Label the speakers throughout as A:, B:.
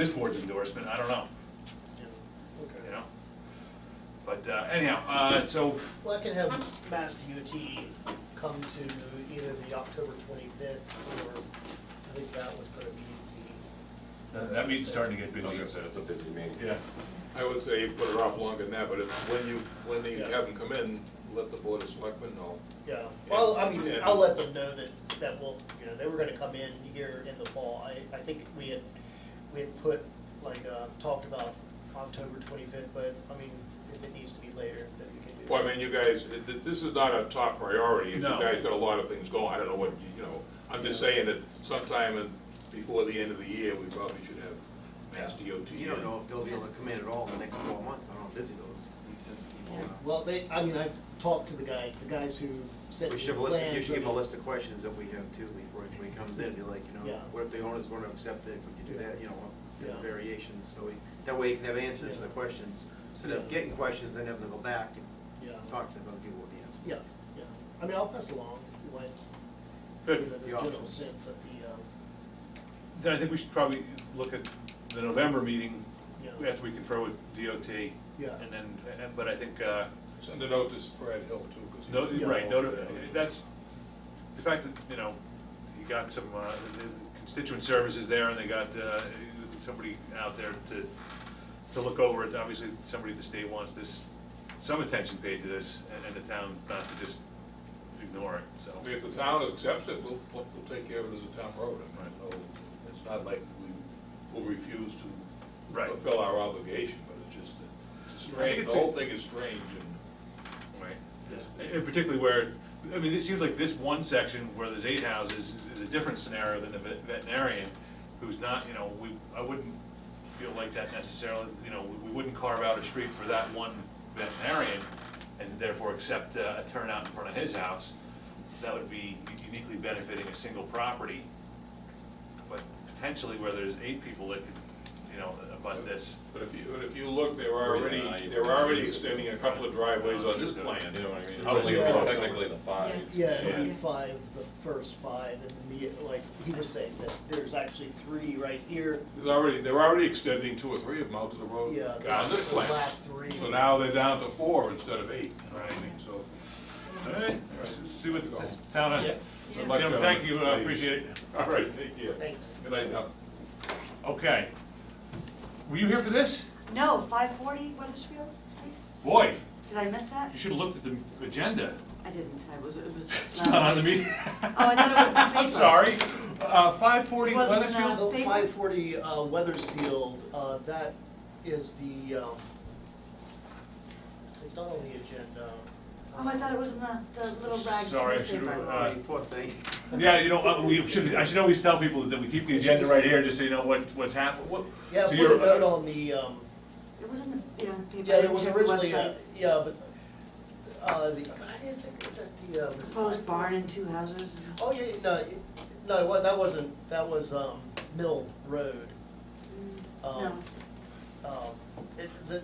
A: this board's endorsement, I don't know, you
B: Okay.
A: know? But uh, anyhow, uh, so,
B: Well, I can have Mass DOT come to either the October twenty-fifth or, I think that was gonna be the.
A: that that meeting's starting to get
C: I was
A: busy.
C: gonna say, it's a busy meeting.
A: Yeah,
D: I would say you put it off longer than that, but if, when you, when they
B: Yeah.
D: have them come in, let the board of selectmen know.
B: Yeah, well, I mean, I'll
D: Yeah.
B: let them know that, that will, you know, they were gonna come in here in the fall. I, I think we had, we had put, like, uh, talked about October twenty-fifth, but, I mean, if it needs to be later, then we can do that.
D: Well, I mean, you guys, th- th- this is not a top priority, you
A: No.
D: guys got a lot of things going, I don't know what, you- you know, I'm just saying that sometime in, before the end of the year, we probably should have Mass DOT.
E: You don't
D: in.
E: know if they'll be able to come in at all in the next four months, I don't know how busy those people are.
B: Well, they, I mean, I've talked to the guys, the guys who sent
E: We
B: me
E: should
B: the
E: have a list,
B: plans.
E: of- you should give them a
B: of-
E: list of questions that we have too, before anybody comes in, be like, you know,
B: Yeah.
E: what if the owners wanna accept it, would you do that, you know,
B: Yeah.
E: variations, so we, that way you can have answers to the
B: Yeah.
E: questions. Instead of
B: Yeah.
E: getting questions, then having to go back
B: Yeah.
E: and talk to other people with the answers.
B: Yeah, yeah. I mean, I'll pass along, like, you know,
A: good.
B: the
E: The
B: general
E: options.
B: sense of the, um,
A: Then I think we should probably look at the November meeting,
B: Yeah.
A: after we confer with DOT.
B: Yeah.
A: And then, and- but I think, uh,
D: Send a note to Brad Hill too, because.
A: no,
B: Yeah.
A: right, no, no, that's, the fact that, you know, you got some, uh, the- the constituent services there, and they got uh, somebody out there to, to look over it, obviously, somebody at the state wants this, some attention paid to this, and- and the town not to just ignore it, so.
D: If the town accepts it, we'll, we'll we'll take care of it as a town road, I mean, no, it's not like we will refuse to
A: Right.
D: fulfill our obligation, but it's just, that
A: I
D: it's
A: think
D: strange, the
A: it's a-
D: whole thing is strange and.
A: Right.
D: Yes.
A: And particularly where, I mean, it seems like this one section where there's eight houses is a different scenario than the vet- veterinarian, who's not, you know, we, I wouldn't feel like that necessarily, you know, we- we wouldn't carve out a street for that one veterinarian and therefore accept uh, a turnout in front of his house. That would be uniquely benefiting a single property. But potentially where there's eight people that could, you know, about this.
D: But if you, but if you look, they're already,
C: Yeah, I-
D: they're already extending a couple of driveways on this
C: You
D: plan.
C: know what I mean? It's
A: How
C: only
B: many
C: it's
B: votes?
C: technically the five.
B: yeah, it'll be
A: Yeah.
B: five, the first five, and then the, like, he was saying that there's actually three right here.
D: There's already, they're already extending two or three of them out to the road
B: Yeah, the
D: on this
B: last- the
D: plan.
B: last three.
D: So now they're down to four instead of eight, you know what I
A: Right.
D: mean, so.
A: All right, let's see what the town has.
D: Good
A: Jim,
D: luck,
A: thank
D: gentlemen.
A: you, I appreciate it.
D: All right, take care.
B: Thanks.
D: Good night now.
A: Okay. Were you here for this?
F: No, five forty Weathersfield Street?
A: Boy,
F: Did I miss that?
A: you should have looked at the agenda.
F: I didn't, I was, it was.
A: It's not on the meeting. Oh,
F: I thought it was in the
A: I'm
F: paper.
A: sorry. Uh, five forty
F: It wasn't in
A: Weathersfield?
F: the-
B: The
F: Paper.
B: five forty, uh, Weathersfield, uh, that is the, um, it's not on the agenda.
F: Oh, I thought it was in the, the little rag
A: Sorry, I
F: newspaper.
A: should've, uh,
E: Alright, poor thing.
A: Yeah, you know, uh, we should, I should always tell people that we keep the agenda right here, just so you know what, what's happening, what.
B: Yeah,
A: so
B: put
A: you're- uh,
B: a note on the, um,
F: It was in the, yeah, paper.
B: Yeah,
F: I
B: there
F: didn't
B: was
F: check the
B: originally, a-
F: website.
B: yeah, but, uh, the, but I didn't think that the, uh. was it
F: Proposed
B: five-
F: barn and two houses.
B: Oh, yeah, yeah, no, it- no, what, that wasn't, that was, um, Mill Road.
F: No,
B: Um, Um, it, the,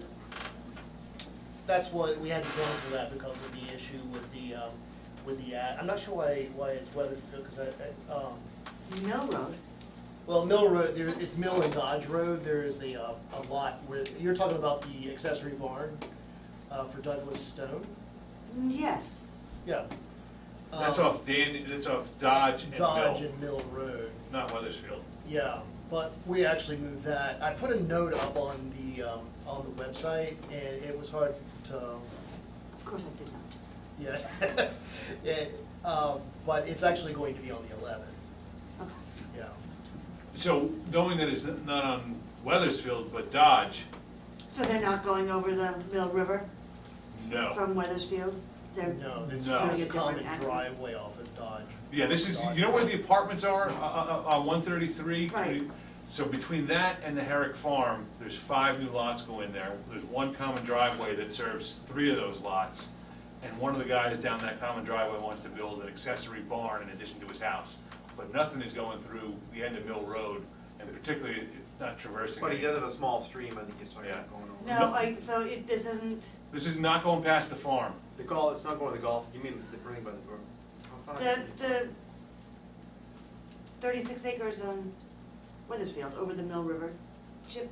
B: that's what, we had to cancel that because of the issue with the, um, with the ad. I'm not sure why, why it's Weatherfield, cause I, I, um,
F: Mill Road.
B: well, Mill Road, there, it's Mill and Dodge Road, there is a, uh, a lot where, you're talking about the accessory barn, uh, for Douglas Stone,
F: Mm, Yes.
B: yeah.
A: That's
B: Um,
A: off Dan, that's off Dodge and
B: Dodge
A: Mill,
B: and Mill Road.
A: not Weathersfield.
B: Yeah, but we actually moved that. I put a note up on the, um, on the website and it was hard to,
F: Of course I did not.
B: yeah. It, um, but it's actually going to be on the eleventh,
F: Okay.
B: yeah.
A: So knowing that it's not on Weathersfield, but Dodge,
F: So they're not going over the Mill River
A: no.
F: from Weathersfield? They're.
B: No, it's,
A: No.
B: there's
F: Doing
B: a
F: a different
B: common
F: access.
B: driveway off of Dodge.
A: Yeah, this is, you know where the apartments are, uh, on one thirty-three?
F: Right.
A: So between that and the Herrick Farm, there's five new lots go in there. There's one common driveway that serves three of those lots. And one of the guys down that common driveway wants to build an accessory barn in addition to his house. But nothing is going through the end of Mill Road, and particularly it- not traversing.
E: But he
A: any-
E: does have a small stream, I think you're talking about
A: Yeah.
E: going over.
F: No, I, so it, this isn't,
A: This is not going past the farm.
E: The golf, it's not going to the golf, you mean the ring by the door? How far is
F: the,
E: it?
F: the thirty-six acres on Weathersfield over the Mill River. chip